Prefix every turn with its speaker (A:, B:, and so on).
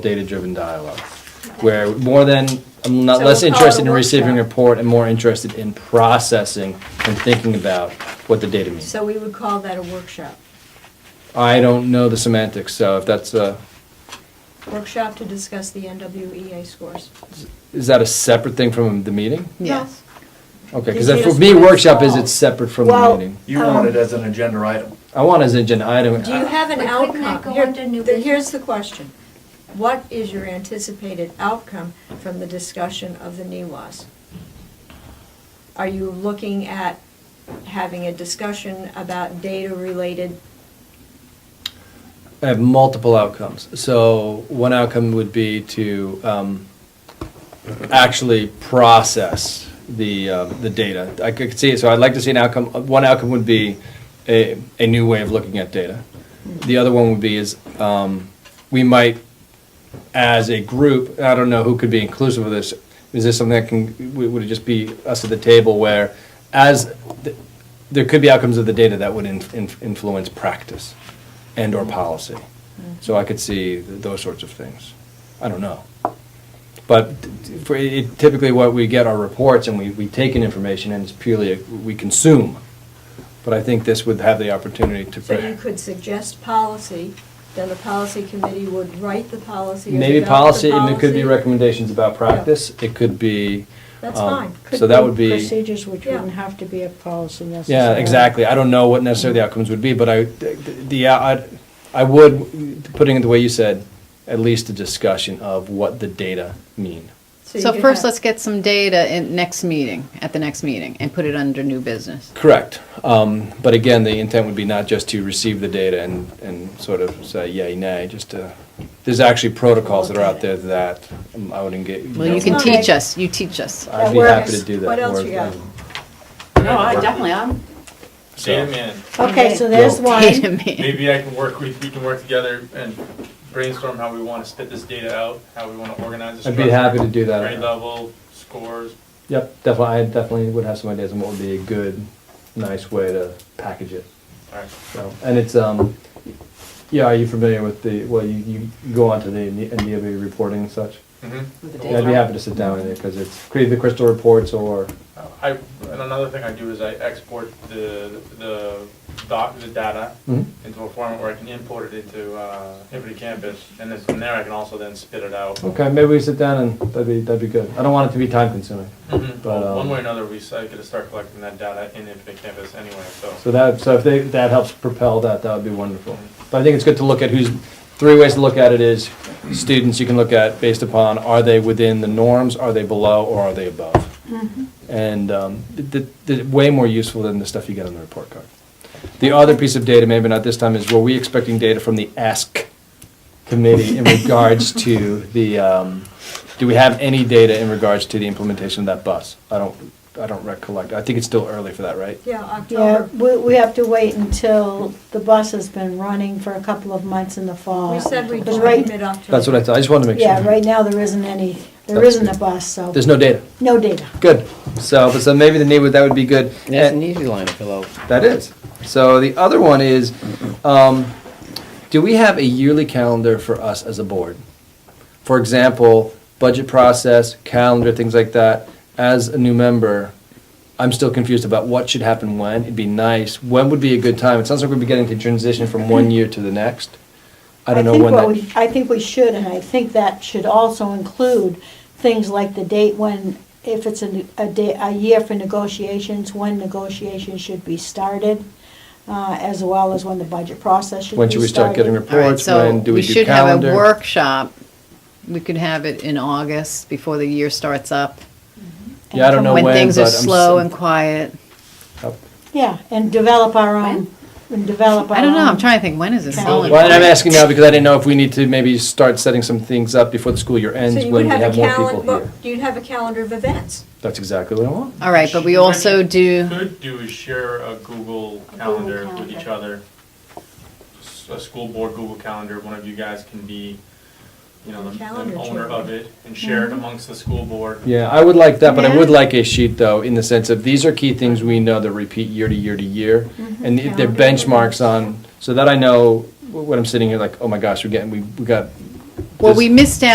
A: data-driven dialogue, where more than, I'm not
B: So
A: less
B: we'll call it a
A: interested in receiving a
B: workshop.
A: report and more interested in processing and thinking about what the data means.
B: So we would call that a workshop.
A: I don't know the semantics, so if that's a,
B: Workshop to discuss the NWEA scores.
A: is that a separate thing from the meeting?
C: Yes.
A: Okay,
B: Did
A: because
B: you
A: for
B: just
A: me,
B: put it
A: workshop is
B: all?
A: it's separate from the
B: Well-
A: meeting.
D: You want it as an agenda item.
A: I want as an agenda item.
B: Do you have an
C: Wait, Uh, couldn't that
B: outcome?
C: go
B: Here-
C: under new
B: the-
C: business?
B: Here's the question. What is your anticipated outcome from the discussion of the E NEWAS? Are you looking at having a discussion about data-related,
A: I have multiple outcomes. So one outcome would be to um, actually process the, uh, the data. I could see, so I'd like to see an outcome, one outcome would be a, a new way of looking at data. The other one would be is, um, we might, as a group, I don't know who could be inclusive of this, is this something that can, would would it just be us at the table where, as, the- there could be outcomes of the data that would in- in- influence practice and/or policy.
B: Mm-hmm.
A: So I could see th- those sorts of things. I don't know. But for, it- typically what we get are reports and we, we take in information and it's purely, a- we consume. But I think this would have the opportunity to.
B: so you could suggest policy, then the policy committee would write the policy. or
A: Maybe
B: develop the
A: policy, and it could be
B: policy.
A: recommendations about practice, it could be.
B: That's
A: um,
B: fine.
A: So that would be.
E: Procedures which
B: Yeah.
E: wouldn't have to be a policy necessarily.
A: Yeah, exactly. I don't know what necessarily the outcomes would be, but I, the- the, uh, I, I would, putting it the way you said, at least a discussion of what the data mean.
B: you
C: So
B: could
C: first,
B: have-
C: let's get some data in next meeting, at the next meeting, and put it under new business.
A: Correct. Um, but again, the intent would be not just to receive the data and, and sort of say yay, nay, just to, there's actually protocols that are out there that um, I would engage.
C: Well, you
A: know,
C: can
B: Okay.
C: teach us, you teach us.
A: I'd be
B: That
A: happy
B: works.
A: to do that.
B: What else
A: more
B: you got?
A: than-
F: No, I definitely am.
A: so.
G: Data man,
E: Okay, so there's
C: Data
E: one.
C: man.
G: maybe I can work, we, we can work together and brainstorm how we wanna spit this data out, how we wanna organize this.
A: I'd be happy to do that.
G: Grade level, scores,
A: Yep, definitely, I definitely would have some ideas on what would be a good, nice way to package it.
G: alright.
A: So, and it's, um, yeah, are you familiar with the, well, you, you go onto the NDOB reporting and such? Yeah, I'd be happy to sit down with you, because it's create the crystal reports or,
G: I, and another thing I do is I export the, the doc, the data
A: Mhm.
G: into a format where I can import it into, uh, Hibbity Campus, and then from there I can also then spit it out.
A: okay, maybe we sit down and that'd be, that'd be good. I don't want it to be time consuming.
G: Mhm.
A: But, um,
G: One way or another, we, s- I gotta start collecting that data in Hibbity Campus anyway, so.
A: So that, so if they, that helps propel that, that would be wonderful. But I think it's good to look at who's, three ways to look at it is, students you can look at based upon, are they within the norms, are they below, or are they above? And um, th- th- th- way more useful than the stuff you get on the report card. The other piece of data, maybe not this time, is were we expecting data from the ask committee in regards to the, um, do we have any data in regards to the implementation of that bus? I don't, I don't recollect. I think it's still early for that, right?
B: Yeah,
E: Yeah,
B: October.
E: we, we have to wait until the bus has been running for a couple of months in the fall.
B: We said we'd
E: Because
B: do
E: right-
B: it mid-October.
A: That's what I thought. I just wanted to make sure.
E: Yeah, right now, there isn't any, there
A: That's
E: isn't
A: good.
E: a bus, so,
A: There's no data.
E: no data.
A: Good. So, but so maybe the need would, that would be good.
H: That's an
A: And-
H: easy line to fill out.
A: That is. So the other one is, um, do we have a yearly calendar for us as a board? For example, budget process, calendar, things like that. As a new member, I'm still confused about what should happen when. It'd be nice. When would be a good time? It sounds like we're beginning to transition from one year to the next. I don't know
E: think
A: when
E: what
A: that.
E: we- I think we should, and I think that should also include things like the date when, if it's a, a day, a year for negotiations, when negotiations should be started, uh, as well as when the budget process should be started.
A: When should we start getting
C: All right,
A: reports? When do we do
C: So we should have
A: calendar?
C: a workshop. We could have it in August, before the year starts up.
A: Yeah, I don't know when,
C: When
A: but I'm.
C: things are
A: s-
C: slow and quiet.
E: Yeah, and develop our own, and develop our
C: I don't know, I'm
E: own-
C: trying to think, when is it slow and
A: Well, and I'm
C: quiet?
A: asking now because I didn't know if we need to maybe start setting some things up before the school year
B: So
A: ends when
B: you would
A: we
B: have
A: have
B: a
A: more people
B: calendar,
A: here.
B: you'd have a calendar of events.
A: That's exactly what I want.
C: All right, but we also do,
G: could do is share a Google calendar with each other. S- A school board Google calendar, one of you guys can be, you know, the
B: Calendar
G: the owner
B: chair.
G: of it and share
C: Mm-hmm.
G: it amongst the school board.
A: Yeah, I would like that, but I would like a sheet though, in the sense of these are key things we know that repeat year to year to year. And if they're
B: Mm-hmm. Calendar.
A: benchmarks on, so that I know wh- when I'm sitting here like, oh my gosh, we're getting, we, we got
C: Well, we missed out.